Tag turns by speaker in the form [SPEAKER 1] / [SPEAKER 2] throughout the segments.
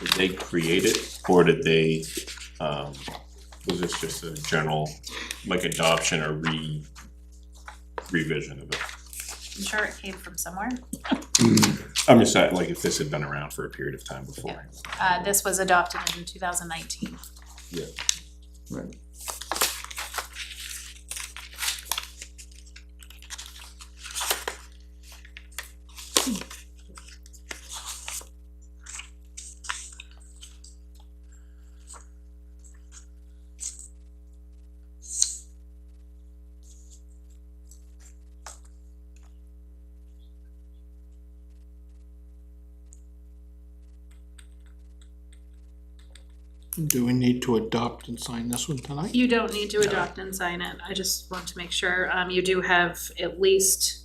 [SPEAKER 1] Did they create it or did they, um, was this just a general, like adoption or re, revision of it?
[SPEAKER 2] I'm sure it came from somewhere.
[SPEAKER 3] Mm.
[SPEAKER 1] I'm just saying, like, if this had been around for a period of time before.
[SPEAKER 2] Uh, this was adopted in two thousand nineteen.
[SPEAKER 4] Right.
[SPEAKER 3] Do we need to adopt and sign this one tonight?
[SPEAKER 2] You don't need to adopt and sign it, I just want to make sure, um, you do have at least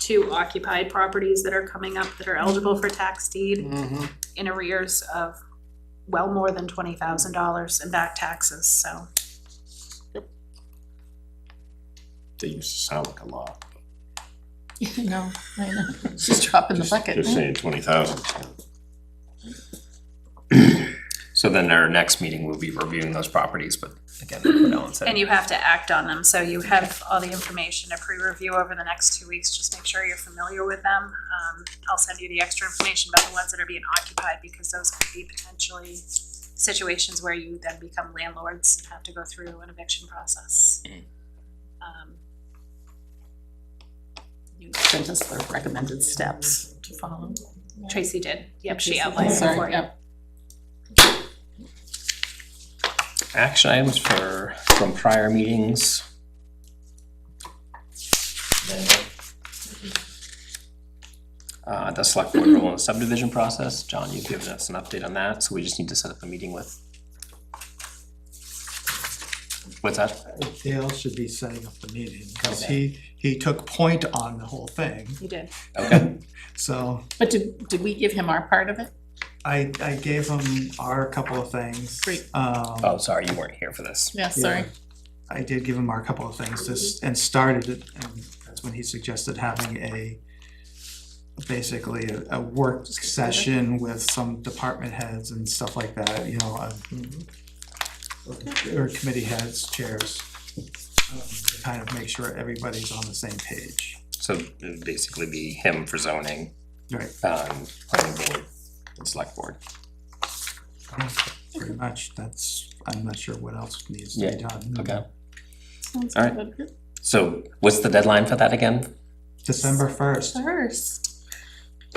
[SPEAKER 2] two occupied properties that are coming up that are eligible for tax deed
[SPEAKER 3] Mm-hmm.
[SPEAKER 2] in arrears of well more than twenty thousand dollars in back taxes, so.
[SPEAKER 1] They used to sound like a lot.
[SPEAKER 5] Yeah, no, I know, it's just dropping the
[SPEAKER 1] Just-
[SPEAKER 5] bucket.
[SPEAKER 1] Just saying twenty thousand.
[SPEAKER 4] So then our next meeting, we'll be reviewing those properties, but again, what Ellen said.
[SPEAKER 2] And you have to act on them, so you have all the information to pre-review over the next two weeks, just make sure you're familiar with them. Um, I'll send you the extra information about the ones that are being occupied, because those could be potentially situations where you then become landlords and have to go through an eviction process. Um,
[SPEAKER 5] You sent us the recommended steps to follow.
[SPEAKER 2] Tracy did, yep, she outlined it
[SPEAKER 5] Sorry,
[SPEAKER 2] for you.
[SPEAKER 5] yep.
[SPEAKER 4] Action items for, from prior meetings. Uh, the select board rule and subdivision process, John, you've given us an update on that, so we just need to set up a meeting with. What's that?
[SPEAKER 6] Dale should be setting up the meeting, because he, he took point on the whole thing,
[SPEAKER 2] You did,
[SPEAKER 4] Okay,
[SPEAKER 6] so
[SPEAKER 5] But did, did we give him our part of it?
[SPEAKER 6] I, I gave him our couple of things.
[SPEAKER 5] Great.
[SPEAKER 6] Um,
[SPEAKER 4] oh, sorry, you weren't here for this.
[SPEAKER 5] Yeah, sorry.
[SPEAKER 6] I did give him our couple of things, this, and started it, and that's when he suggested having a, basically a, a work session with some department heads and stuff like that, you know, uh, or committee heads, chairs, um, to kind of make sure everybody's on the same page.
[SPEAKER 4] So it would basically be him for zoning,
[SPEAKER 6] Right.
[SPEAKER 4] um, planning board, and select board.
[SPEAKER 6] pretty much, that's, I'm not sure what else needs to
[SPEAKER 4] Yeah,
[SPEAKER 6] be done.
[SPEAKER 4] Okay,
[SPEAKER 5] Sounds
[SPEAKER 4] All right.
[SPEAKER 5] good. Good.
[SPEAKER 4] so what's the deadline for that again?
[SPEAKER 6] December first,
[SPEAKER 5] First,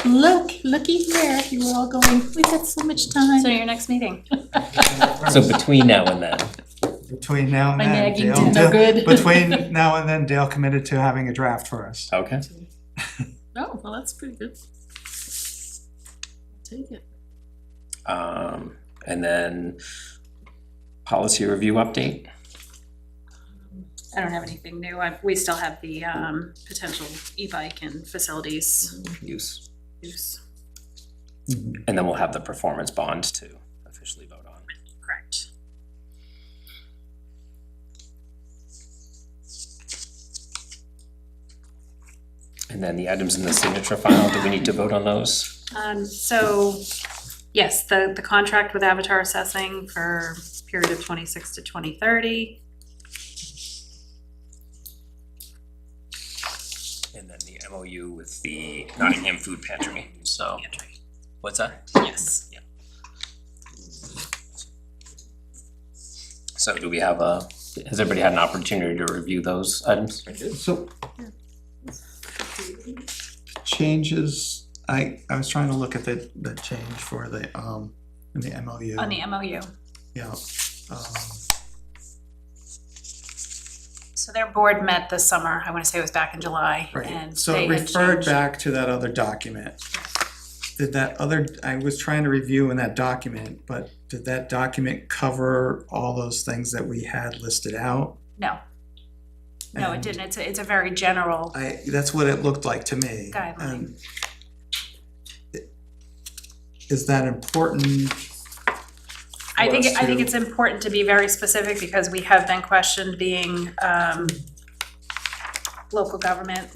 [SPEAKER 5] look, looky here, you were all going, we've got so much
[SPEAKER 2] so
[SPEAKER 5] time.
[SPEAKER 2] your next meeting,
[SPEAKER 4] So between now and then,
[SPEAKER 6] between now and
[SPEAKER 5] My
[SPEAKER 6] then,
[SPEAKER 5] nagging
[SPEAKER 6] Dale.
[SPEAKER 5] did no good.
[SPEAKER 6] Between now and then, Dale committed to having a draft for us.
[SPEAKER 4] okay?
[SPEAKER 5] Oh, well, that's pretty good. Take it.
[SPEAKER 4] Um, and then policy review update,
[SPEAKER 2] I don't have anything new, I, we still have the, um, potential e-bike and facilities
[SPEAKER 4] use,
[SPEAKER 2] use,
[SPEAKER 4] and then we'll have the performance bond to officially vote on.
[SPEAKER 2] correct?
[SPEAKER 4] And then the items in the signature file, do we need to vote on those?
[SPEAKER 2] Um, so, yes, the, the contract with Avatar Assessing for period of twenty-six to twenty thirty.
[SPEAKER 4] And then the MOU with the Nottingham Food Pantry, so, what's that?
[SPEAKER 2] Yes,
[SPEAKER 4] So do we have a, has everybody had an opportunity to review those items?
[SPEAKER 6] So. Changes, I, I was trying to look at the, the change for the, um, in the MOU.
[SPEAKER 2] on the MOU.
[SPEAKER 6] Yeah, um,
[SPEAKER 2] So their board met this summer, I wanna say it was back in July, and
[SPEAKER 6] right, so
[SPEAKER 2] they
[SPEAKER 6] it
[SPEAKER 2] had
[SPEAKER 6] referred
[SPEAKER 2] changed-
[SPEAKER 6] back to that other document. Did that other, I was trying to review in that document, but did that document cover all those things that we had listed out?
[SPEAKER 2] No. No, it
[SPEAKER 6] And-
[SPEAKER 2] didn't, it's, a- it's a very general,
[SPEAKER 6] I, that's what it looked like to me. Um,
[SPEAKER 2] Guideline.
[SPEAKER 6] and it- Is that important?
[SPEAKER 2] I think,
[SPEAKER 6] was
[SPEAKER 2] I think
[SPEAKER 6] to-
[SPEAKER 2] it's important to be very specific, because we have been questioned being, um, local government,